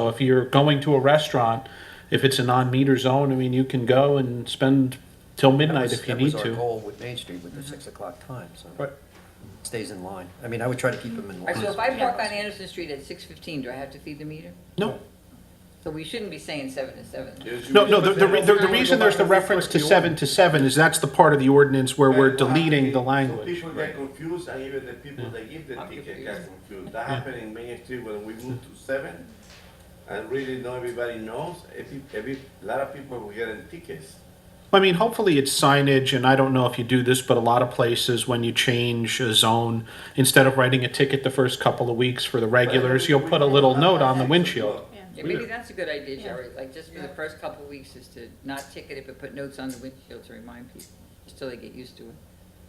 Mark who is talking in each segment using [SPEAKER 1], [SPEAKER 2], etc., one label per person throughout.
[SPEAKER 1] So if you're going to a restaurant, if it's a non-meter zone, I mean, you can go and spend till midnight if you need
[SPEAKER 2] That was our
[SPEAKER 1] to.
[SPEAKER 2] goal with Main Street, with the six o'clock time, so
[SPEAKER 1] Right.
[SPEAKER 2] it stays in line. I mean, I would try to keep them in
[SPEAKER 3] All right, so if
[SPEAKER 2] line.
[SPEAKER 3] I park on Anderson Street at six fifteen, do I have to feed the meter?
[SPEAKER 1] No,
[SPEAKER 3] So we shouldn't be saying seven to seven.
[SPEAKER 1] no, no, the, the, re- the the reason there's the reference to seven to seven is that's the part of the ordinance where we're deleting the
[SPEAKER 4] So
[SPEAKER 1] language.
[SPEAKER 4] people get confused, and even the people that give the
[SPEAKER 3] I'm
[SPEAKER 4] ticket get
[SPEAKER 3] confused.
[SPEAKER 4] confused. That happened in Main Street when we moved to seven, and really not everybody knows. Every, every, lot of people were getting tickets.
[SPEAKER 1] I mean, hopefully it's signage, and I don't know if you do this, but a lot of places, when you change a zone, instead of writing a ticket the first couple of weeks for the regulars, you'll put a little note on the windshield.
[SPEAKER 3] Yeah, maybe that's a good idea, Jerry, like just for the first couple of weeks is to not ticket it, but put notes on the windshield to remind people, just till they get used to it.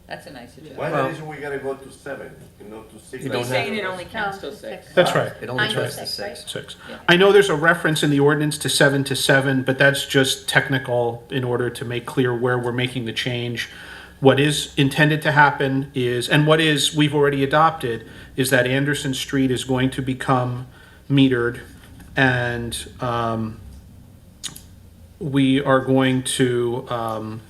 [SPEAKER 3] That's a nice
[SPEAKER 4] Why
[SPEAKER 3] suggestion.
[SPEAKER 4] the
[SPEAKER 2] Well-
[SPEAKER 4] reason we gotta go to seven, and not to six?
[SPEAKER 2] You
[SPEAKER 4] like
[SPEAKER 2] don't
[SPEAKER 3] He's saying it
[SPEAKER 4] everybody?
[SPEAKER 3] only counts till
[SPEAKER 5] No,
[SPEAKER 3] six.
[SPEAKER 5] six.
[SPEAKER 1] That's right.
[SPEAKER 2] It only
[SPEAKER 5] Nine to
[SPEAKER 2] goes to
[SPEAKER 5] six, right?
[SPEAKER 2] six.
[SPEAKER 1] Six.
[SPEAKER 3] Yeah.
[SPEAKER 1] I know there's a reference in the ordinance to seven to seven, but that's just technical in order to make clear where we're making the change. What is intended to happen is, and what is, we've already adopted, is that Anderson Street is going to become metered and, um, we are going to, um,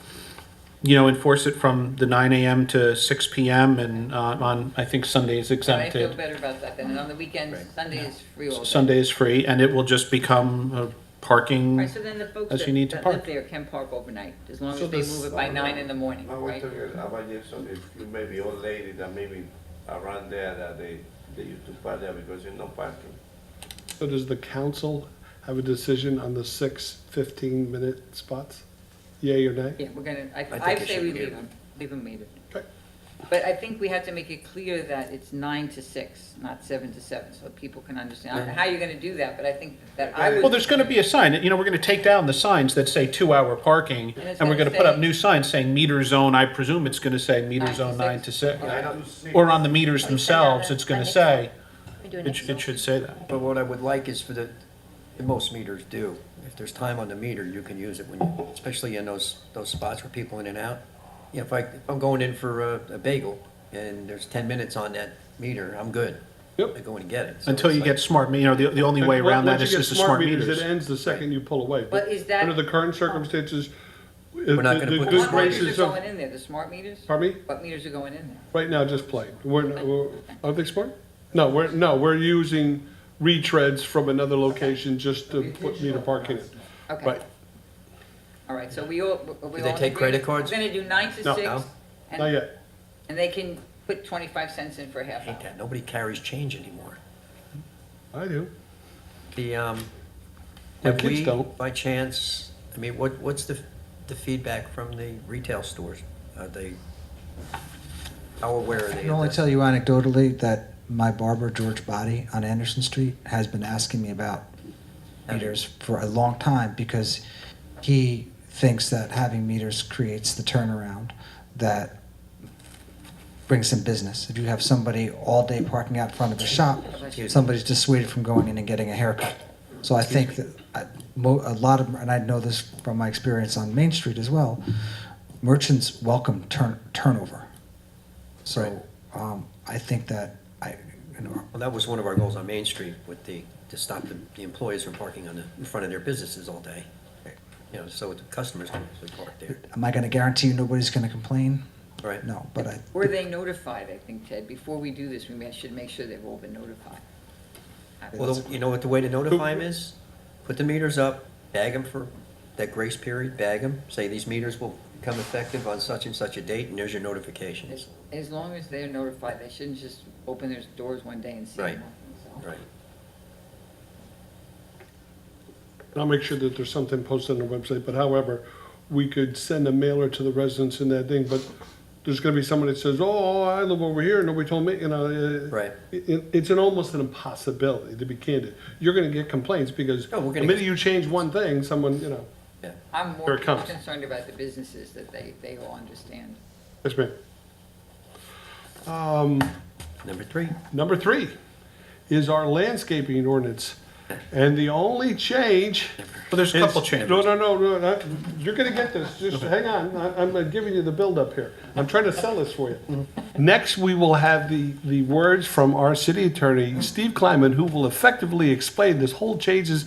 [SPEAKER 1] you know, enforce it from the nine AM to six PM and, uh, on, I think Sunday's
[SPEAKER 3] But I
[SPEAKER 1] exempted.
[SPEAKER 3] feel better about that then, and on the weekends, Sunday is free all day.
[SPEAKER 1] Sunday is free, and it will just become a
[SPEAKER 3] All
[SPEAKER 1] parking.
[SPEAKER 3] right, so then the folks
[SPEAKER 1] As you
[SPEAKER 3] that
[SPEAKER 1] need to
[SPEAKER 3] that live
[SPEAKER 1] park.
[SPEAKER 3] there can park overnight, as long
[SPEAKER 1] So
[SPEAKER 3] as they
[SPEAKER 1] this-
[SPEAKER 3] move it by nine in the morning,
[SPEAKER 4] Now we're
[SPEAKER 3] right?
[SPEAKER 4] talking about just some, if you maybe old lady that maybe around there that they, they used to park there because there's no parking.
[SPEAKER 6] So does the council have a decision on the six 15-minute spots? Yay or nay?
[SPEAKER 3] Yeah, we're gonna, I,
[SPEAKER 2] think
[SPEAKER 3] I
[SPEAKER 2] it
[SPEAKER 3] say
[SPEAKER 2] should
[SPEAKER 3] we
[SPEAKER 2] be
[SPEAKER 3] leave
[SPEAKER 2] metered.
[SPEAKER 3] them, leave them metered.
[SPEAKER 6] Okay.
[SPEAKER 3] But I think we have to make it clear that it's nine to six, not seven to seven, so people can understand. I don't know How you're gonna do that, but I think that I
[SPEAKER 1] Well,
[SPEAKER 3] would,
[SPEAKER 1] there's gonna be a sign, you know, we're gonna take down the signs that say two-hour parking,
[SPEAKER 3] And it's
[SPEAKER 1] and we're
[SPEAKER 3] gonna
[SPEAKER 1] gonna put up
[SPEAKER 3] say-
[SPEAKER 1] new signs saying meter zone, I presume it's gonna say meter
[SPEAKER 3] Nine to
[SPEAKER 1] zone nine to
[SPEAKER 3] six.
[SPEAKER 1] six.
[SPEAKER 4] Nine to six.
[SPEAKER 1] Or on the meters
[SPEAKER 5] Or you say
[SPEAKER 1] themselves,
[SPEAKER 5] on a-
[SPEAKER 1] it's gonna
[SPEAKER 5] on a-
[SPEAKER 1] say,
[SPEAKER 5] We do an
[SPEAKER 1] it sh-
[SPEAKER 5] Excel.
[SPEAKER 1] it should say that.
[SPEAKER 2] But what I would like is for the, and most meters do, if there's time on the meter, you can use it when, you- especially in those, those spots where people in and out. You know, if I, if I'm going in for a a bagel and there's ten minutes on that meter, I'm good.
[SPEAKER 6] Yep.
[SPEAKER 2] I go in and get it. So
[SPEAKER 1] Until
[SPEAKER 2] it's
[SPEAKER 1] you
[SPEAKER 2] like-
[SPEAKER 1] get smart, me- you know, the, the only way around that is
[SPEAKER 6] Once you get
[SPEAKER 1] just the smart
[SPEAKER 6] It
[SPEAKER 1] meters.
[SPEAKER 6] ends the second you pull away.
[SPEAKER 3] But is that-
[SPEAKER 6] Under the current circumstances, the
[SPEAKER 2] not gonna
[SPEAKER 6] the
[SPEAKER 2] put
[SPEAKER 6] good
[SPEAKER 3] what
[SPEAKER 2] this
[SPEAKER 3] meters
[SPEAKER 6] graces
[SPEAKER 3] are
[SPEAKER 6] of,
[SPEAKER 3] going in there, the smart meters?
[SPEAKER 6] pardon me,
[SPEAKER 3] What meters are going in there?
[SPEAKER 6] right now just play. We're, we're- are they smart? No, we're, no, we're using retreads from another location just to put meter parking in.
[SPEAKER 3] Okay.
[SPEAKER 6] Right.
[SPEAKER 3] All right, so we all, we all.
[SPEAKER 2] they take
[SPEAKER 3] agree?
[SPEAKER 2] credit cards?
[SPEAKER 3] We're gonna do nine to
[SPEAKER 6] No.
[SPEAKER 3] six,
[SPEAKER 2] No.
[SPEAKER 6] Not
[SPEAKER 3] and,
[SPEAKER 6] yet.
[SPEAKER 3] and they can put twenty-five cents in for half
[SPEAKER 2] Hate
[SPEAKER 3] hour.
[SPEAKER 2] that. Nobody carries change anymore.
[SPEAKER 6] I do.
[SPEAKER 2] The, um,
[SPEAKER 6] My
[SPEAKER 2] have
[SPEAKER 6] kids
[SPEAKER 2] we,
[SPEAKER 6] don't.
[SPEAKER 2] by chance, I mean, what, what's the, the feedback from the retail stores? Are they, how aware are they?
[SPEAKER 7] I can only tell you anecdotally that my barber, George Body, on Anderson Street, has been asking me about meters for a long time because he thinks that having meters creates the turnaround that brings in business. If you have somebody all day parking out front of the shop, somebody's dissuaded from going in and getting a haircut. So I think that I- mo- a lot of, and I know this from my experience on Main Street as well, merchants welcome turn, turnover. So, um, I think that I, you know,
[SPEAKER 2] Well, that was one of our goals on Main Street with the, to stop the the employees from parking on the, in front of their businesses all day. You know, so the customers can actually park there.
[SPEAKER 7] am I gonna guarantee you nobody's gonna complain?
[SPEAKER 2] Right.
[SPEAKER 7] No, but I,
[SPEAKER 3] Were they notified, I think, Ted? Before we do this, we may- should make sure they've all been notified. I-
[SPEAKER 2] Well, the- you know what the way to notify them is? Put the meters up, bag them for that grace period, bag them, say these meters will become effective on such and such a date, and there's your
[SPEAKER 3] As,
[SPEAKER 2] notifications.
[SPEAKER 3] as long as they're notified, they shouldn't just open their doors one day and see
[SPEAKER 2] Right.
[SPEAKER 3] nothing, so.
[SPEAKER 2] Right.
[SPEAKER 6] And I'll make sure that there's something posted on the website, but however, we could send a mailer to the residents in that thing, but there's gonna be someone that says, oh, I live over here, nobody told me, you know. uh,
[SPEAKER 2] Right.
[SPEAKER 6] It, it- it's an, almost an impossibility, to be candid. You're gonna get complaints because
[SPEAKER 2] Oh,
[SPEAKER 6] the
[SPEAKER 2] we're gonna
[SPEAKER 6] minute
[SPEAKER 2] get-
[SPEAKER 6] you change one thing, someone, you know,
[SPEAKER 2] Yeah.
[SPEAKER 3] I'm
[SPEAKER 6] Here
[SPEAKER 3] more
[SPEAKER 6] it comes.
[SPEAKER 3] concerned about the businesses that they, they all understand.
[SPEAKER 6] yes, ma'am.
[SPEAKER 2] Number three.
[SPEAKER 6] Number three is our landscaping ordinance. And the only change.
[SPEAKER 1] But there's a
[SPEAKER 6] is-
[SPEAKER 1] couple changes.
[SPEAKER 6] No, no, no, no, not- you're gonna get this, just hang on, I- I'm uh, giving you the buildup here. I'm trying to sell this for you.
[SPEAKER 1] Mm-hmm.
[SPEAKER 6] Next, we will have the, the words from our city attorney, Steve Kleiman, who will effectively explain this whole changes